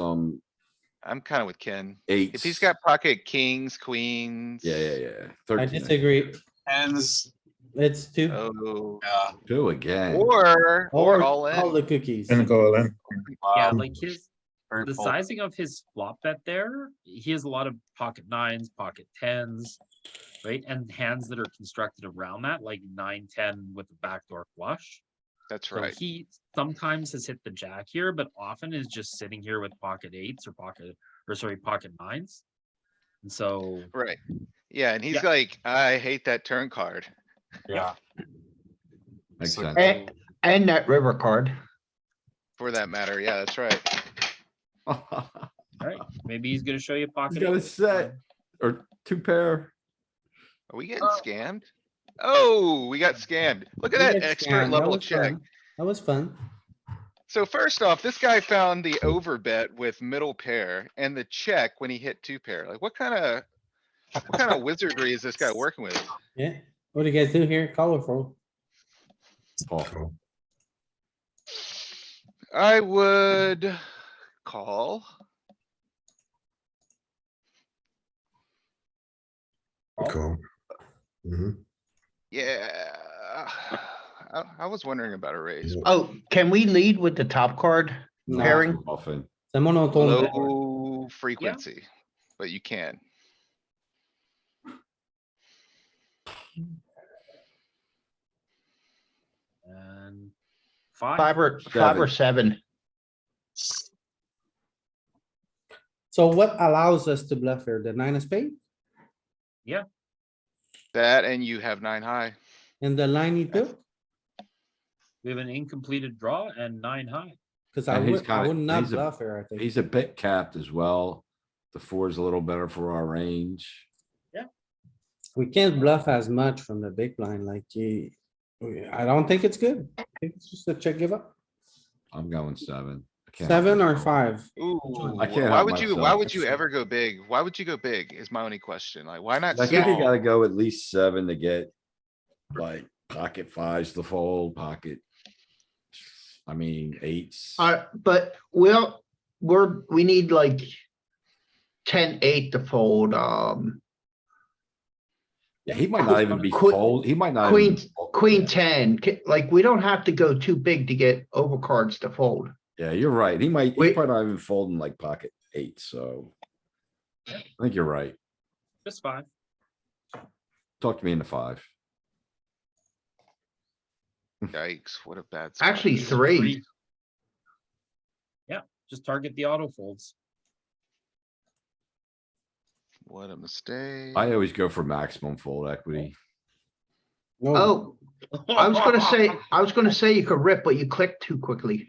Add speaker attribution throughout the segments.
Speaker 1: some
Speaker 2: I'm kinda with Ken.
Speaker 1: eights.
Speaker 2: If he's got pocket kings, queens.
Speaker 1: Yeah, yeah, yeah.
Speaker 3: I
Speaker 1: Thirteen,
Speaker 3: disagree.
Speaker 4: Hands,
Speaker 3: It's two
Speaker 2: Oh,
Speaker 4: yeah.
Speaker 1: two again.
Speaker 2: or,
Speaker 3: or
Speaker 2: or all
Speaker 3: all the
Speaker 2: in.
Speaker 3: cookies.
Speaker 5: And go all in.
Speaker 6: Yeah,
Speaker 4: wow,
Speaker 6: like his,
Speaker 4: very
Speaker 6: the
Speaker 4: full.
Speaker 6: sizing of his flop bet there, he has a lot of pocket nines, pocket tens. Right, and hands that are constructed around that, like nine, ten with a backdoor flush.
Speaker 2: That's
Speaker 6: So
Speaker 2: right.
Speaker 6: he sometimes has hit the jack here, but often is just sitting here with pocket eights or pocket, or sorry, pocket nines. And so,
Speaker 2: Right. Yeah, and he's
Speaker 6: Yeah.
Speaker 2: like, I hate that turn card.
Speaker 4: Yeah.
Speaker 1: Makes
Speaker 4: So-
Speaker 1: sense.
Speaker 7: And, and that river card.
Speaker 2: For that matter, yeah, that's right.
Speaker 1: He's
Speaker 6: alright, maybe he's gonna show you pocket.
Speaker 1: got a
Speaker 6: eights, uh,
Speaker 1: set or two pair.
Speaker 2: Are we getting scammed? Oh, we got scammed. Look at that expert level check.
Speaker 3: That was fun.
Speaker 2: So first off, this guy found the over bet with middle pair and the check when he hit two pair. Like what kind of? What kind of wizardry is this guy working with?
Speaker 3: Yeah. What do you guys do here? Colorful.
Speaker 1: Awful.
Speaker 2: I would call.
Speaker 8: Call. hmm
Speaker 2: Yeah. I, I was wondering about a raise.
Speaker 7: Oh, can we lead with the top card?
Speaker 3: No.
Speaker 7: Pairing.
Speaker 1: Often.
Speaker 3: C'est monotone.
Speaker 2: Low frequency, but you can.
Speaker 6: And five,
Speaker 7: Five or, five or seven?
Speaker 3: So what allows us to bluff here? The nine of spade
Speaker 2: That and you have nine high.
Speaker 3: and the line E he took?
Speaker 6: we have an incompleted draw and nine high.
Speaker 3: Cause I
Speaker 1: And he's
Speaker 3: would, I
Speaker 1: kinda-
Speaker 3: would not
Speaker 1: he's a-
Speaker 3: bluff here, I think.
Speaker 1: He's a bit capped as well. The four is a little better for our range.
Speaker 3: We can't bluff as much from the big blind like you. I don't think it's good. I think it's just a check give up.
Speaker 1: I'm going seven. I can't help
Speaker 3: Seven or
Speaker 1: myself.
Speaker 3: five?
Speaker 2: Ooh,
Speaker 1: I can't
Speaker 2: why
Speaker 1: help
Speaker 2: would you,
Speaker 1: myself.
Speaker 2: why would you ever go big? Why would you go big is my only question. Like, why not
Speaker 1: I think you
Speaker 2: small?
Speaker 1: gotta go at least seven to get like pocket fives to fold, pocket. I mean, eights.
Speaker 7: Uh, but we'll, we're, we need like ten, eight to fold, um,
Speaker 1: Yeah, he might not even be
Speaker 7: Queen-
Speaker 1: fold. He might not. even
Speaker 7: queen,
Speaker 1: be fold.
Speaker 7: queen ten. Ca- Like, we don't have to go too big to get overcards to fold.
Speaker 1: Yeah, you're right. He might, he's
Speaker 7: Wait.
Speaker 1: probably not even folding like pocket eight, so. I think you're right.
Speaker 6: Just five.
Speaker 1: Talk to me in the five.
Speaker 2: Yikes, what a bad. spot.
Speaker 7: Actually, three.
Speaker 6: Yeah, just target the auto folds.
Speaker 2: What a mistake.
Speaker 1: I always go for maximum fold equity.
Speaker 3: No,
Speaker 7: Oh, I was gonna say, I was gonna say you could rip, but you clicked too quickly.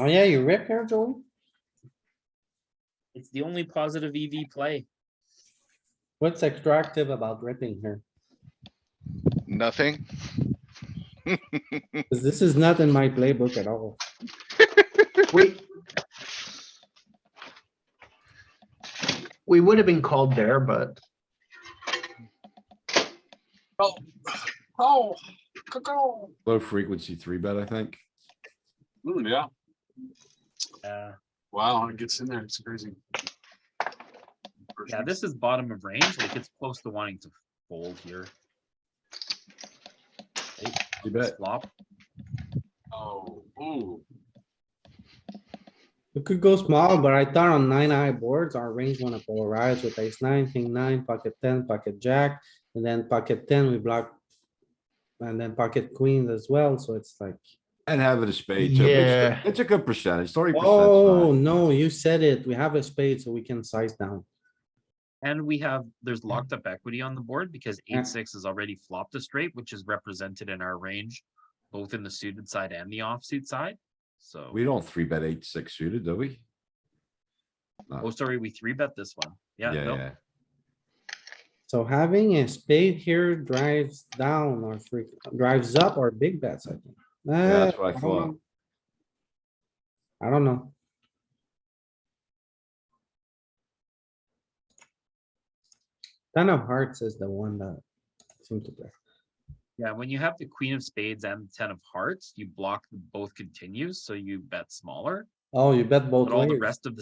Speaker 3: oh yeah, you rip here, Joey?
Speaker 6: It's the only positive EV play.
Speaker 3: What's attractive about ripping here?
Speaker 2: Nothing.
Speaker 3: 'Cause this is not in my playbook at all.
Speaker 7: We. We would have been called there, but
Speaker 4: Oh, oh, cuckoo.
Speaker 1: Low frequency three bet, I think.
Speaker 4: Mm, yeah,
Speaker 6: Uh,
Speaker 4: wow, it gets in there, it's crazy.
Speaker 6: yeah, this is bottom of range, like it's close to wanting to fold here.
Speaker 1: You bet.
Speaker 6: Flop,
Speaker 4: Oh, ooh,
Speaker 3: We could go small, but I thought on nine eye boards, our range wanna polarize with ace nine, king nine, pocket ten, pocket jack, and then pocket ten, we block. And then pocket queens as well, so it's like,
Speaker 1: And have it a spade. too. It's-
Speaker 7: Yeah.
Speaker 1: It's a good percentage, thirty
Speaker 3: oh,
Speaker 1: percent.
Speaker 3: no, you said it, we have a spade, so we can size down.
Speaker 6: and we have,
Speaker 7: Hmm.
Speaker 6: there's locked up equity on the board because
Speaker 3: Yeah.
Speaker 6: eight, six has already flopped a straight, which is represented in our range. Both in the suited side and the offsuit side, so,
Speaker 1: We don't three bet eight, six suited, do we?
Speaker 6: oh, sorry, we three bet this one, yeah,
Speaker 1: Yeah,
Speaker 6: no,
Speaker 1: yeah.
Speaker 3: So having a spade here drives down or free, drives up our big bets, I think.
Speaker 1: Yeah, that's
Speaker 3: Uh,
Speaker 1: what I
Speaker 3: don't
Speaker 1: thought.
Speaker 3: know. I don't know. Ten of hearts is the one that seemed to play.
Speaker 6: yeah, when you have the queen of spades and ten of hearts, you block the both continues, so you bet smaller.
Speaker 9: Oh, you bet both
Speaker 3: But all the
Speaker 9: ways.
Speaker 3: rest of the